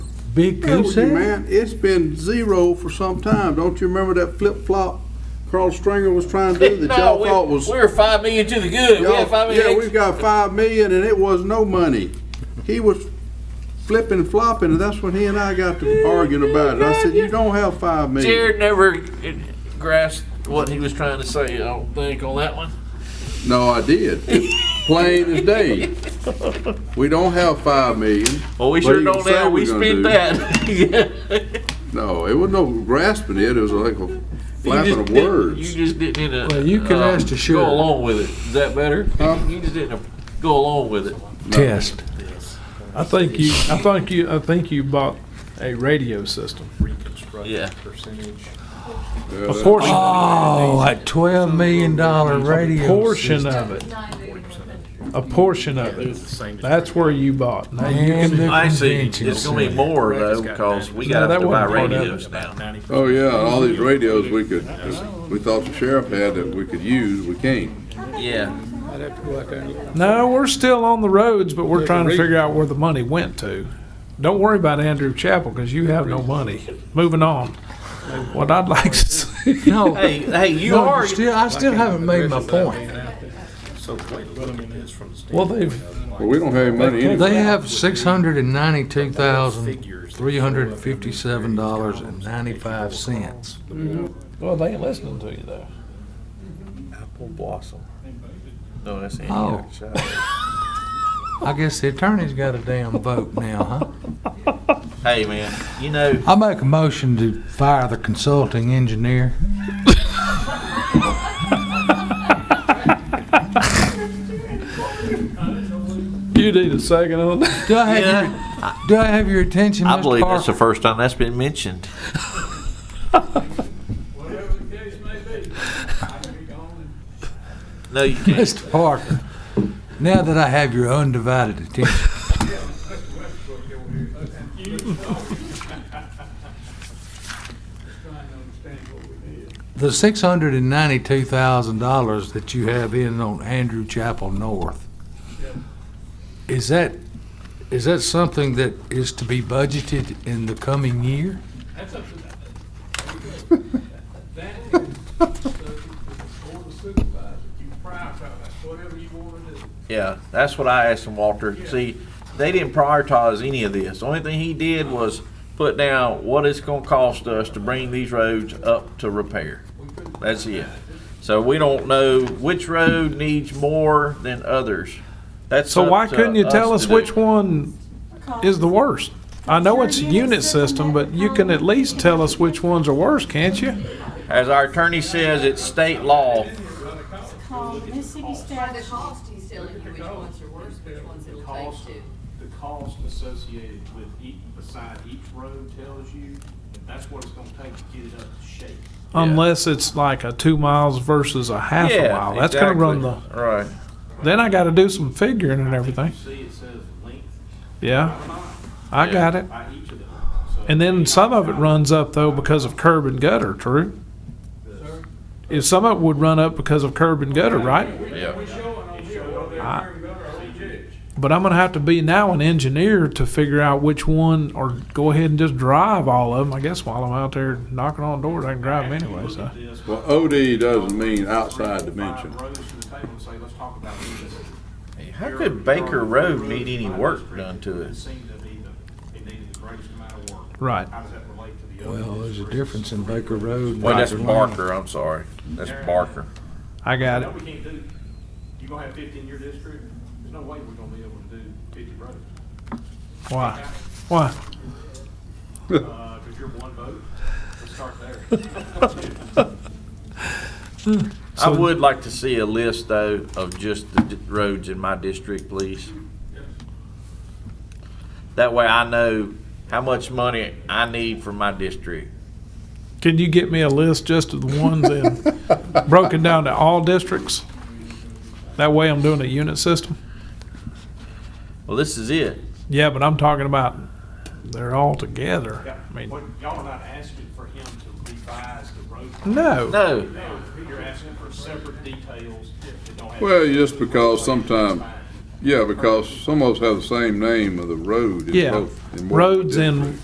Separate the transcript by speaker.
Speaker 1: Big goose
Speaker 2: Tell you,
Speaker 1: egg?
Speaker 2: Man, it's been zero for some time. Don't you remember that flip-flop Carl Stringer was trying to do that
Speaker 3: No,
Speaker 2: y'all
Speaker 3: we-
Speaker 2: thought was?
Speaker 3: We were five million to the good. We had five
Speaker 2: y'all-
Speaker 3: million.
Speaker 2: Yeah, we've got five million and it was no money. He was flipping, flopping, and that's when he and I got to arguing about it. I said, you don't have five million.
Speaker 3: Jared never eh, grasped what he was trying to say, I don't think, on that one.
Speaker 2: No, I did. It's Plain as day. We don't have five million.
Speaker 3: Well, we
Speaker 2: What
Speaker 3: sure
Speaker 2: you gonna
Speaker 3: don't
Speaker 2: say
Speaker 3: now. We
Speaker 2: we're gonna
Speaker 3: spent
Speaker 2: do?
Speaker 3: that. Yeah.
Speaker 2: No, it wasn't no grasping it. It was like a flapping of
Speaker 3: didn't-
Speaker 2: words.
Speaker 3: You just didn't. uh,
Speaker 1: Well, you can
Speaker 3: um,
Speaker 1: ask the sheriff.
Speaker 3: Go along with it. Is that better?
Speaker 2: Huh?
Speaker 3: You just didn't go along with it.
Speaker 1: Test.
Speaker 4: I think you, I think you, I think you bought a radio system.
Speaker 3: Yeah.
Speaker 2: Yeah,
Speaker 4: A
Speaker 2: that-
Speaker 4: portion,
Speaker 1: Oh, that twelve million dollar radio.
Speaker 4: portion of
Speaker 1: system.
Speaker 4: it. A portion of it. That's where you bought. Now you
Speaker 1: And
Speaker 4: can,
Speaker 1: the
Speaker 3: I see.
Speaker 1: convention
Speaker 3: It's gonna be
Speaker 1: center.
Speaker 3: more though because we
Speaker 4: No,
Speaker 3: got
Speaker 4: that
Speaker 3: to buy
Speaker 4: wasn't part of it.
Speaker 3: radios now.
Speaker 2: Oh, yeah, all these radios we could, we thought the sheriff had that we could use, we can't.
Speaker 3: Yeah.
Speaker 4: no, we're still on the roads, but we're trying to figure out where the money went to. Don't worry about Andrew Chapel, cause you have no money. Moving on. What I'd like to see.
Speaker 1: No,
Speaker 3: Hey, hey, you
Speaker 1: no,
Speaker 3: are.
Speaker 1: you still, I still haven't made my point.
Speaker 4: Well, they've,
Speaker 2: Well, we don't have any money anyway.
Speaker 1: They have six hundred and ninety-two thousand, three hundred and fifty-seven dollars and ninety-five cents.
Speaker 4: well, they ain't listening to you though.
Speaker 3: Apple blossom. No, that's
Speaker 1: Oh.
Speaker 3: Antioch.
Speaker 1: I guess the attorney's got a damn vote now, huh?
Speaker 3: Hey, man. You know.
Speaker 1: I make a motion to fire the consulting engineer.
Speaker 4: You need a second on that.
Speaker 1: Do I have your, do I have your attention,
Speaker 3: I believe
Speaker 1: Mr.
Speaker 3: that's the
Speaker 1: Parker?
Speaker 3: first time that's been mentioned. No, you can't.
Speaker 1: Mr. Parker, now that I have your undivided attention, the six hundred and ninety-two thousand dollars that you have in on Andrew Chapel North, is that, is that something that is to be budgeted in the coming year?
Speaker 5: That's up to that. That is subject to the board of supervisors. You prioritize whatever you want to do.
Speaker 3: Yeah, that's what I asked him, Walter. See, they didn't prioritize any of this. The only thing he did was put down what it's gonna cost us to bring these roads up to repair. That's it. So we don't know which road needs more than others. That's
Speaker 4: So
Speaker 3: up
Speaker 4: why
Speaker 3: to
Speaker 4: couldn't you tell us
Speaker 3: to uh, do.
Speaker 4: which one is the worst? I know it's a unit system, but you can at least tell us which ones are worse, can't you?
Speaker 3: As our attorney says, it's state law.
Speaker 6: called Mississippi
Speaker 7: By the
Speaker 6: statute.
Speaker 7: cost, he's telling you which ones are worse, which ones it'll
Speaker 8: cost,
Speaker 7: take to.
Speaker 8: the cost associated with each, beside each road tells you that that's what it's gonna take to get it up to shape.
Speaker 4: Unless it's like a two miles versus a half a
Speaker 3: Yeah,
Speaker 4: mile. That's gonna run the,
Speaker 3: exactly. Right.
Speaker 4: then I gotta do some figuring and everything.
Speaker 8: You see, it says length
Speaker 4: Yeah,
Speaker 8: by mile,
Speaker 4: I got it.
Speaker 8: by each of them. So
Speaker 4: And then some of it runs up though because of curb and gutter, true? If some of it would run up because of curb and gutter, right?
Speaker 3: Yeah.
Speaker 5: Showing on here whether they're
Speaker 4: I-
Speaker 5: wearing gutter or judge.
Speaker 4: But I'm gonna have to be now an engineer to figure out which one, or go ahead and just drive all of them. I guess while I'm out there knocking on doors, I can drive them anyway. So
Speaker 3: uh,
Speaker 8: This,
Speaker 2: Well, OD doesn't mean outside dimension.
Speaker 8: five rows to the table and say, let's talk about these.
Speaker 3: How could Baker Road need any work done to
Speaker 8: It
Speaker 3: it?
Speaker 8: seemed to be the, it needed the greatest amount of work.
Speaker 4: right,
Speaker 8: How does that relate to the other?
Speaker 1: Well, there's a difference in Baker Road. and
Speaker 3: Well, that's
Speaker 1: Baker Lane.
Speaker 3: Barker, I'm sorry. That's Barker.
Speaker 4: I got
Speaker 8: No,
Speaker 4: it.
Speaker 8: we can't do, you gonna have fifty in your district, there's no way we're gonna be able to do fifty roads.
Speaker 4: Why? Why?
Speaker 8: Uh, cause you're one vote, let's start there.
Speaker 3: I would like to see a list, though, of just the d- roads in my district, please. That way I know how much money I need for my district.
Speaker 4: Can you get me a list just of the ones in, broken down to all districts? That way, I'm doing a unit system.
Speaker 3: Well, this is it.
Speaker 4: Yeah, but I'm talking about they're all together.
Speaker 8: Yeah,
Speaker 4: I mean,
Speaker 8: what, y'all are not asking for him to revise the road.
Speaker 4: no.
Speaker 3: No,
Speaker 8: No, you're asking for separate details that don't have.
Speaker 2: Well, just because sometime, yeah, because some of us have the same name of the road. in
Speaker 4: Yeah,
Speaker 2: both- in both
Speaker 4: roads in
Speaker 2: districts.